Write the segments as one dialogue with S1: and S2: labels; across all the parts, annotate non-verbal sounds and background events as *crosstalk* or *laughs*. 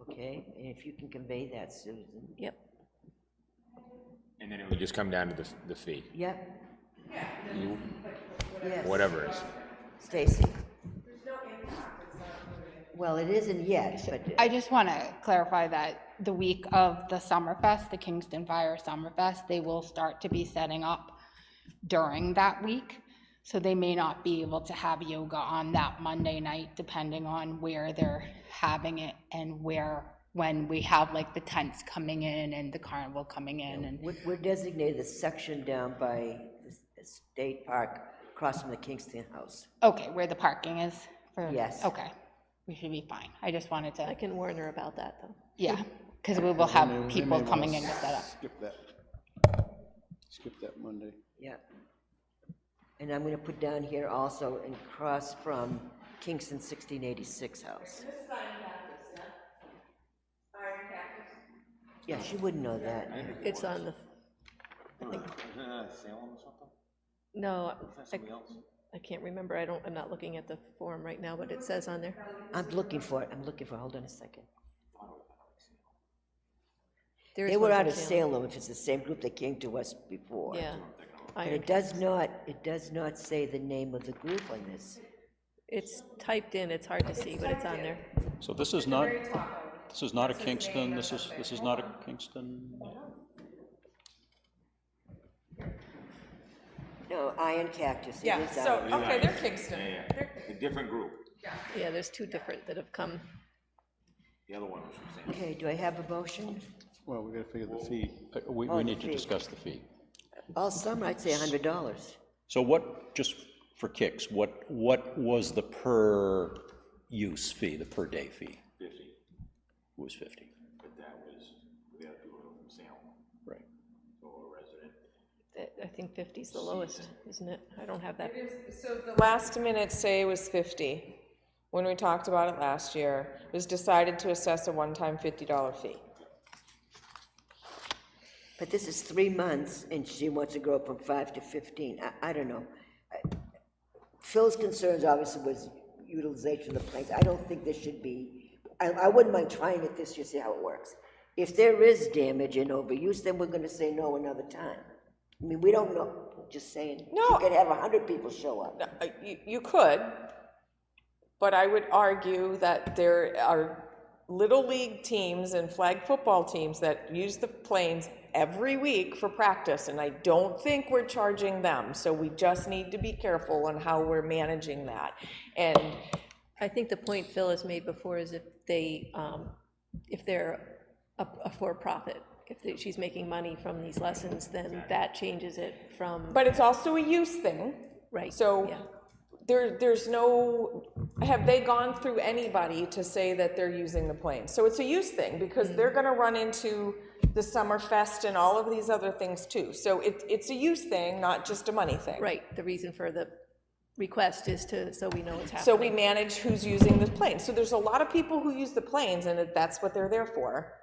S1: Okay, and if you can convey that, Susan.
S2: Yep.
S3: And then it would just come down to the, the fee,
S1: Yep,
S3: you,
S1: yes.
S3: whatever it is.
S1: Stacy. Well, it isn't yet, but
S4: I just want to clarify that the week of the Summerfest, the Kingston Fire Summerfest, they will start to be setting up during that week. So they may not be able to have yoga on that Monday night, depending on where they're having it and where, when we have like the tents coming in and the carnival coming in and
S1: we're- we're designated the section down by the State Park, across from the Kingston House.
S4: Okay, where the parking is for?
S1: Yes.
S4: Okay, we should be fine. I just wanted
S2: I
S4: to,
S2: can warn her about that, though.
S4: yeah, because we will have people coming in to set up.
S5: Skip that. Skip that Monday.
S1: Yeah. And I'm gonna put down here also and cross from Kingston sixteen eighty-six house. Yeah, she wouldn't know that.
S2: It's on the, no, I, I can't remember, I don't, I'm not looking at the form right now, but it says on there.
S1: I'm looking for it, I'm looking for, hold on a second.
S2: There is
S1: They
S2: one
S1: were
S2: for
S1: out of
S2: Salem.
S1: Salem, if it's the same group that came to us before.
S2: Yeah.
S1: But
S2: I,
S1: it does not, it does not say the name of the group on this.
S2: it's typed in, it's hard to see, but it's on there.
S6: So this is not, this is not a Kingston, this is, this is not a Kingston,
S1: No, Iron Cactus, it
S7: Yeah,
S1: is
S7: so,
S1: out.
S7: okay, they're Kingston.
S3: Yeah, yeah,
S7: They're-
S3: a different group,
S2: Yeah, there's two different that have come.
S3: the other one was from Sam.
S1: Okay, do I have a motion?
S5: Well, we gotta figure the fee.
S6: Uh, we,
S1: Oh, the
S6: we need to
S1: fee.
S6: discuss the fee.
S1: All summer, I'd say a hundred dollars.
S6: So what, just for kicks, what, what was the per use fee, the per day fee? Fifty. Was fifty. But
S2: That- I think 50's the lowest, isn't it? I don't have that.
S7: So the last minute say was 50, when we talked about it last year, It was decided to assess a one-time $50 fee.
S1: But this is three months, and she wants to grow from five to 15. I, I don't know. I- Phil's concerns obviously was utilization of the planes. I don't think this should be, I, I wouldn't mind trying it this year, see how it works. If there is damage and overuse, then we're gonna say no another time. I mean, we don't know, just saying. You
S7: No.
S1: could have 100 people show up.
S7: No, uh, You, you could, but I would argue that there are little league teams and flag football teams that use the planes every week for practice, and I don't think we're charging them, so we just need to be careful on how we're managing that. And
S2: I think the point Phil has made before is if they, um, if they're a a for-profit, if they- she's making money from these lessons, then that changes it from,
S7: But it's also a use thing.
S2: right.
S7: So
S2: yeah.
S7: there, there's no, have they gone through anybody to say that they're using the plane? So it's a use thing because they're going to run into the Summerfest and all of these other things too. So it, it's a use thing, not just a money thing.
S2: Right, the reason for the request is to, so we know what's
S7: So
S2: happening.
S7: we manage who's using the plane. So there's a lot of people who use the planes and it- that's what they're there for.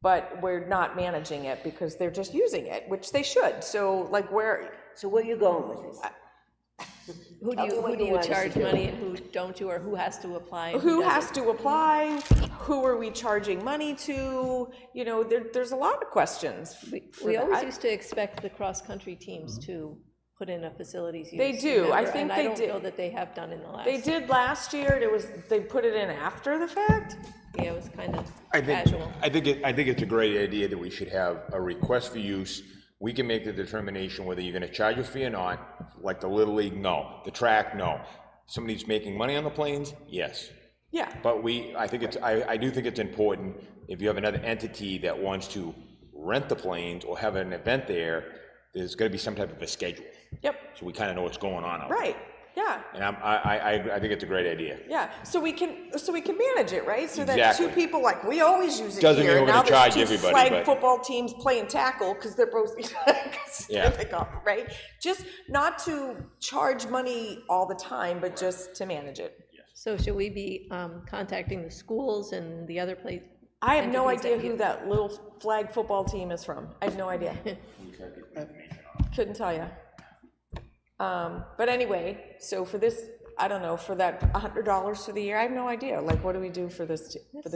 S7: But we're not managing it because they're just using it, which they should. So like where,
S1: So where are you going with this?
S2: Who do
S1: tell me
S2: you,
S1: what
S2: who do
S1: you
S2: you
S1: want us to
S2: charge
S1: do.
S2: money and who don't you, or who has to apply? and
S7: who
S2: doesn't?
S7: has to apply, who are we charging money to, you know, there, there's a lot of questions.
S2: We-
S7: for
S2: We
S7: that.
S2: always used to expect the cross-country teams
S3: Mm-hmm.
S2: to put in a facilities use.
S7: They do. I
S2: remember? And
S7: think they
S2: I
S7: do.
S2: don't know that they have done in the last.
S7: They did last year, and it was, they put it in after the fact?
S2: Yeah, it was kind of
S3: I think,
S2: casual.
S3: I think, it- I think it's a great idea that we should have a request for use. We can make the determination whether you're gonna charge a fee or not, like the Little League, no, the track, no. Somebody's making money on the planes, yes.
S7: Yeah.
S3: But we, I think it's, I, I do think it's important, if you have another entity that wants to rent the planes or have an event there, there's gonna be some type of a schedule,
S7: Yep,
S3: so we kinda know what's going on out there.
S7: right, yeah.
S3: And I'm, I, I, I- I think it's a great idea.
S7: Yeah, so we can, so we can manage it, right? So that two
S3: Exactly.
S7: people, like, we always use it here.
S3: Doesn't mean we're
S7: and now
S3: gonna
S7: there's
S3: charge
S7: two
S3: everybody,
S7: Flag
S3: but-
S7: football teams playing tackle, because they're both, *laughs* 'cause
S3: Yeah.
S7: they're pickup, right? Just not to charge money all the time, but just to manage it.
S2: So should we be um, contacting the schools and the other place?
S7: I have no
S2: entities that
S7: idea who that little flag football team is from. I have no idea. Couldn't tell you. Um, but anyway, so for this, I don't know, for that hundred dollars for the year, I have no idea. Like, what do we do for this, for